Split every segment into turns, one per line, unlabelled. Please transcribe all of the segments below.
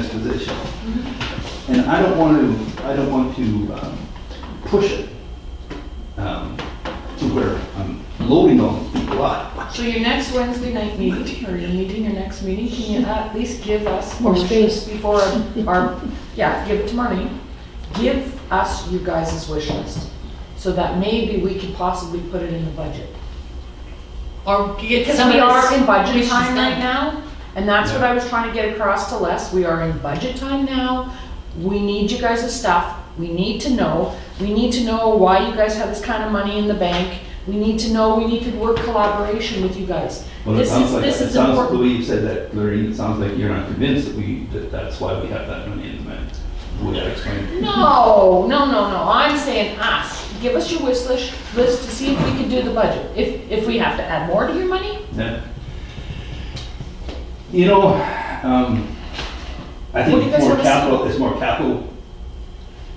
this position. And I don't want to, I don't want to um, push it um, to where I'm loading all these people up.
So your next Wednesday night meeting, or your meeting, your next meeting, can you at least give us?
More space.
Before, our yeah, give it to Marlene. Give us you guys' wish list, so that maybe we could possibly put it in the budget.
Or get
Because
some
we
of
are in
this.
budget
wishes
time right
done.
now, and that's what I was trying to get across to Les, we are in budget time now. We need you guys' stuff, we need to know, we need to know why you guys have this kind of money in the bank. We need to know, we need to work collaboration with you guys.
Well, it
This
sounds
is,
like, it
this is
sounds, the
important.
way you said that, Lorraine, it sounds like you're not convinced that we, that that's why we have that money in the bank. Would that explain?
No, no, no, no, I'm saying us, give us your wish list, list to see if we can do the budget. If, if we have to add more to your money,
Yeah. You know, um, I
What
think
do you
it's
guys
more
wanna see?
capital, it's more capital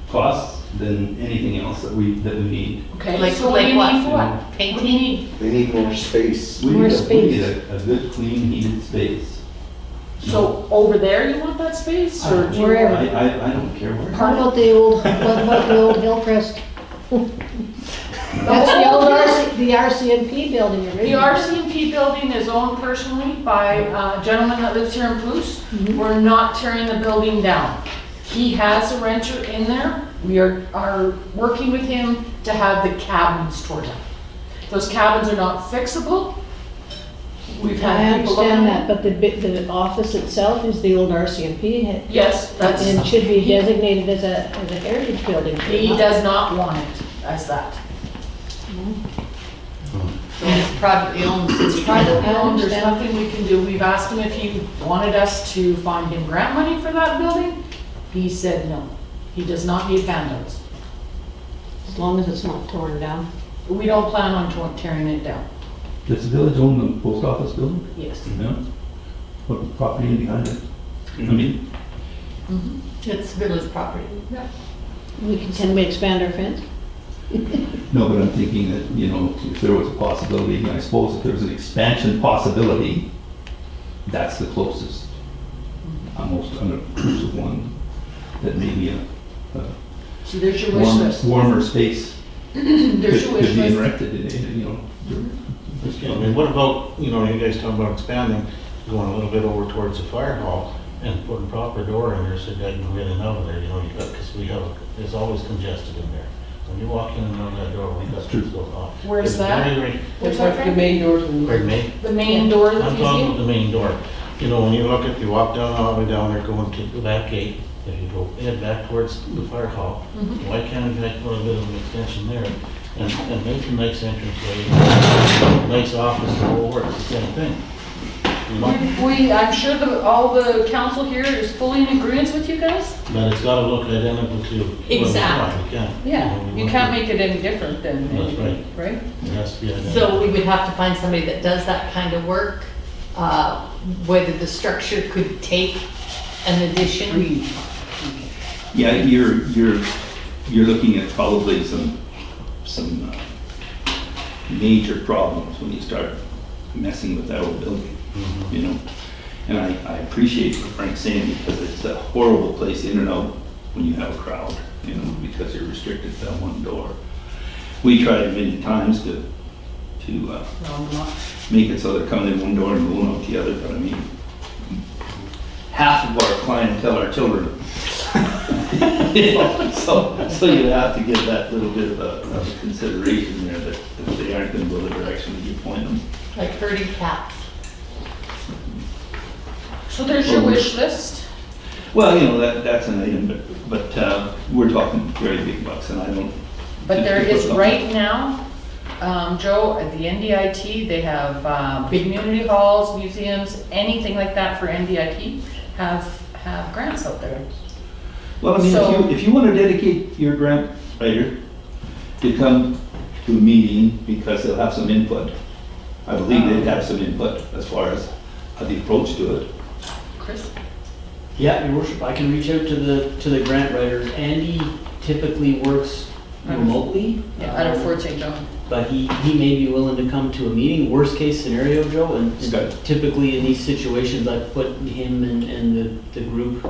costs than anything else that we, that we need.
okay,
Like-
so what do
like
you
what?
need for what? What do you
Painting,
need?
They need more space.
We
More
need a- we need
space.
a, a good, clean, heated space.
So over there, you want that space,
Uh,
or do you
Wherever.
I, I, I don't care where.
what about the old, what about the old Hillcrest? That's the old RC, the RCMP building
Oh, The
originally.
RCMP building is owned personally by a gentleman that lives here in Pouce.
Mm-hmm.
We're not tearing the building down. He has a renter in there. We are, are working with him to have the cabins torn down. Those cabins are not fixable. We've
I
had people look
understand
at
that, but the, bi- the office itself is the old RCMP. head-
Yes, that's,
And should be
he
designated as a, as a heritage building. should
he
not?
does not want it as that.
It's privately owned, it's private.
Private owned, there's
understand.
nothing we can do. We've asked him if he wanted us to find him grant money for that building. He said no. He does not need fandos.
As long as it's not torn down.
We don't plan on to- tearing it down.
Does the village own the post office building?
Yes.
No. What property in behind it? I
Mm-hmm.
mean,
It's village property.
We can, can we expand our fence?
no, but I'm thinking that, you know, if there was a possibility, I suppose if there was an expansion possibility, that's the closest. Almost under of one, that maybe a
So there's your wish
warmer,
list.
warmer space could
There's your wish
could be
list.
erected in, it, you know.
Yeah, I mean, what about, you know, you guys talking about expanding, going a little bit over towards the fire hall and putting proper door in there so that you can get in out of there, you know, you got, because we have, it's always congested in there. When you walk in and out that door, we got things going on.
Where's
It's
that?
very, very-
Where's that from?
Pardon me?
The main door of the
I'm talking about
museum?
the main door. You know, when you look at, you walk down, all the way down there, going to the back gate, if you go head back towards the fire hall, why can't we make a little bit of an extension there? And, and make a nice entrance way, nice office, the whole works, the same thing. You know,
We- We, I'm sure the, all the council here is fully in agreement with you guys?
But it's gotta look identical to. what we want,
Exact.
You can't. know, we
You
want
can't
to-
make it any different than,
That's right.
right?
It has to be
So
identical.
we would have to find somebody that does that kind of work, uh, whether the structure could take an addition.
Yeah, you're, you're, you're looking at probably some, some uh, major problems when you start messing with that old building, you know? And I, I appreciate what Frank's saying because it's a horrible place in and out when you have a crowd, you know, because you're restricted to that one door. We tried many times to, to uh, make it so they're coming in one door and going out the other, but I mean, half of our clientele are children. So, so you have to give that little bit of a- of a consideration there that that they aren't gonna go the direction that you point them.
Like herding cats.
So there's your wish list.
Well, you know, that, that's an item, but, but uh, we're talking very big bucks and I don't.
But
think
there
we put
is
something-
right now, um, Joe, at the NDIT, they have, um, community halls, museums, anything like that for NDIT have, have grants out there.
Well, I mean,
so-
if you, if you wanna dedicate your grant writer to come to a meeting because they'll have some input. I believe they'd have some input as far as uh, the approach to it.
Chris?
Yeah, your worship, I can reach out to the, to the grant writers. Andy typically works
Out of-
remotely.
Out
um,
of Fort St. John.
But he, he may be willing to come to a meeting, worst case scenario, Joe, and
Scott.
typically in these situations, I put him and, and the, the group